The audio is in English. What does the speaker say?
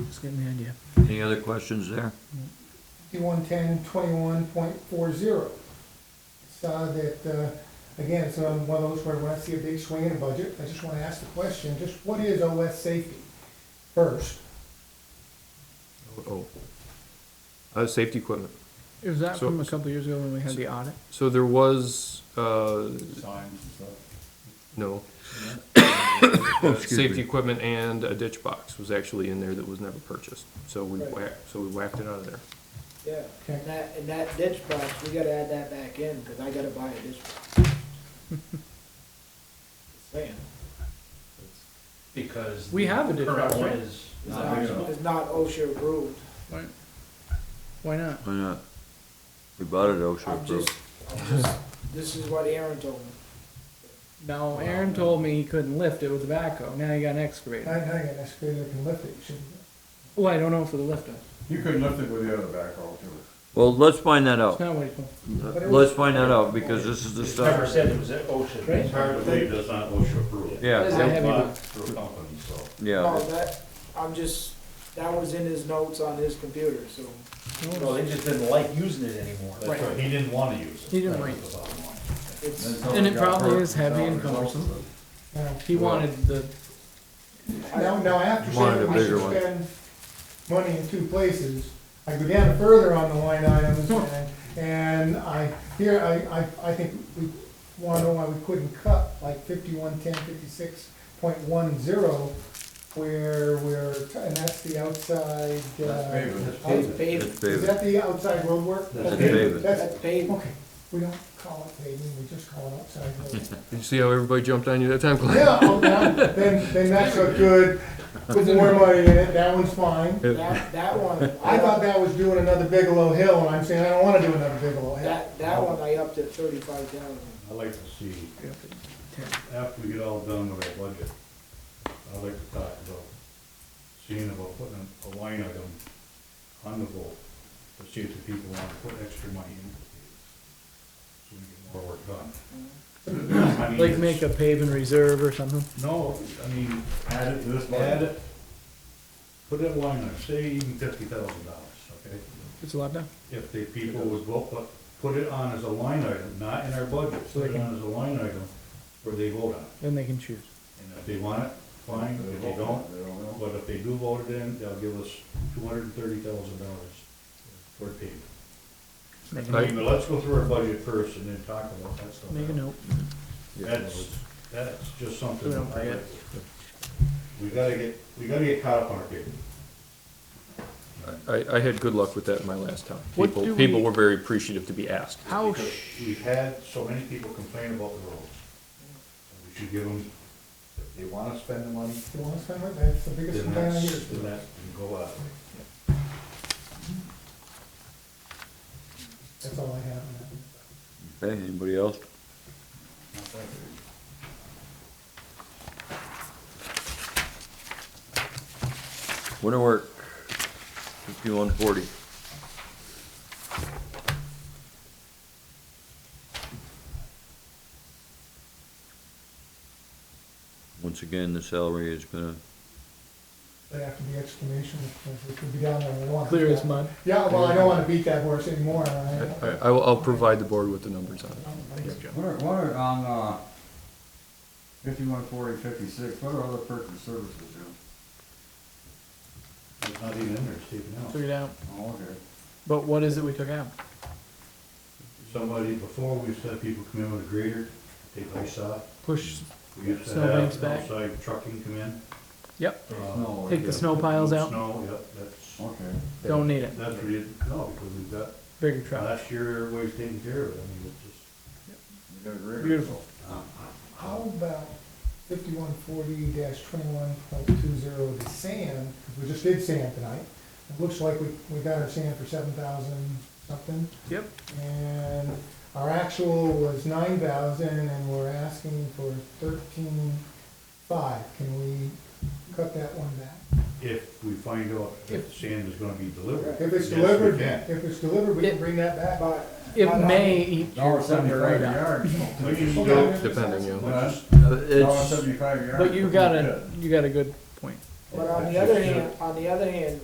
It's getting the idea. Any other questions there? fifty-one ten twenty-one point four zero. Saw that, uh, again, it's um, one of those where when I see a big swing in a budget, I just wanna ask the question, just what is OS safety first? Oh. Uh, safety equipment. Is that So- from a couple of years ago when we had the audit? So there was, uh, no. Uh, Oh, Excuse me. Safety equipment and a ditch box was actually in there that was never purchased. So we Right. whacked, so we whacked it out of there. Yeah, Okay. and that, and that ditch box, we gotta add that back in, cause I gotta buy a ditch box. Just Saying, Because. We the have a ditch Current box, one right? is it's not not, usable. it's not OSHA approved, Right. Why not? Why not? We bought it OSHA I'm approved. just, I'm just, this is what Aaron told me. No, Aaron told me he couldn't lift it with the backhoe. Now you got an I, excavator. I got an excavator that can lift it, should, Well, I don't know for the lifter. You couldn't lift it with the other backhoe too. Well, let's find that It's out. not what he told. Let's find that out because this is the It's never stuff. said it was at OSHA. Right. It's hard to believe that's not OSHA approved. That is Yeah, a heavy Not one. through a company, so. yeah. No, that, I'm just, that was in his notes on his computer, so. Well, they just didn't like using it anymore. That's right, he didn't wanna use it. He didn't That like was the bottom line. It's, until And it got probably hurt, is heavy and that's all it cumbersome. resulted. now, He wanted the, now, now after saying Wanted a that we bigger should one. spend money in two places, I go down further on the line items and, and I, here, I, I, I think we wanna know why we couldn't cut like fifty-one ten fifty-six point one zero where we're, and that's the outside, That's uh, paving. it's paved, It's is paving. that the outside road work? That's Okay, paving. That's, that's paved. okay, we don't call it paving, we just call it outside road. Did you see how everybody jumped on you that time, Clyde? Yeah, oh, now, then, then that's a good, put more money in it, that one's fine. That, that one, I I thought up, that was doing another Bigelow Hill, and I'm saying I don't wanna do another Bigelow Hill. that, that one I upped at thirty-five thousand. I'd like to see, after we get all done with our budget, I'd like to talk about seeing about putting a line item on the vote to see if the people want to put extra money in. So we get more work done. I mean, Mm-hmm. like it's- make a paving reserve or something. No, I mean, add it to this budget. Add it, put it in line, item, say even fifty thousand dollars, okay? It's a lot down. If the people would vote, but put it on as a line item, not in our budget, put it on as a line item where they vote on it. Then they can choose. And if they want it, fine, if they don't, but if they do vote it in, they'll give us two hundred and thirty thousand dollars toward payment. Make a I note. mean, but let's go through our budget first and then talk about that stuff. Make a note. That's, that's just something. We don't that I- forget. We gotta get, we gotta get caught up on our people. I, I had good luck with that in my last town. What People, do people we- were very appreciative to be asked. Oh, How, Because sh- We've had so many people complain about the roads. We should give them, if they wanna spend the money, You wanna spend it, that's the biggest then complaint I that's, hear. then that can go out. That's all I have. on that. Okay, anybody else? Winter work, fifty-one forty. Once again, the salary is gonna, But after the explanation, if we could be down there, we want. clear as mud. Yeah, well, I don't wanna beat that horse anymore, I, I, I will, I'll provide the board with the numbers on it. What are, what are on, uh, fifty-one forty, fifty-six, what are other perks and services, Jim? It's not even in there, it's taken out. Took it out. Oh, okay. But what is it we took out? Somebody, before we used to have people come in with a grader, take ice off. Push, We used to Snow banks have back. outside trucking come in. yep, uh, No, take the okay. snow piles out. Snow, yep, that's, Okay. Don't need it. that's what you, no, because we've got, Bigger truck. last year, everybody's taking care of it, I mean, it's just. You got a grader. Beautiful. How about fifty-one forty twenty-one point two zero, the sand, 'cause we just did sand tonight. It looks like we, we got our sand for seven thousand something, Yep. and our actual was nine thousand, and we're asking for thirteen-five. Can we cut that one back? If we find out that the sand is gonna be delivered. If it's Yes, we delivered, can. if it's delivered, we can bring that back. But It may eat Dollar your thunder seventy-five right a out. yard. We just Okay. don't- Depending, yeah. Huh? Uh, Dollar it's, seventy-five a yard. But you got a, you got a good point. But on the other hand, on the other hand,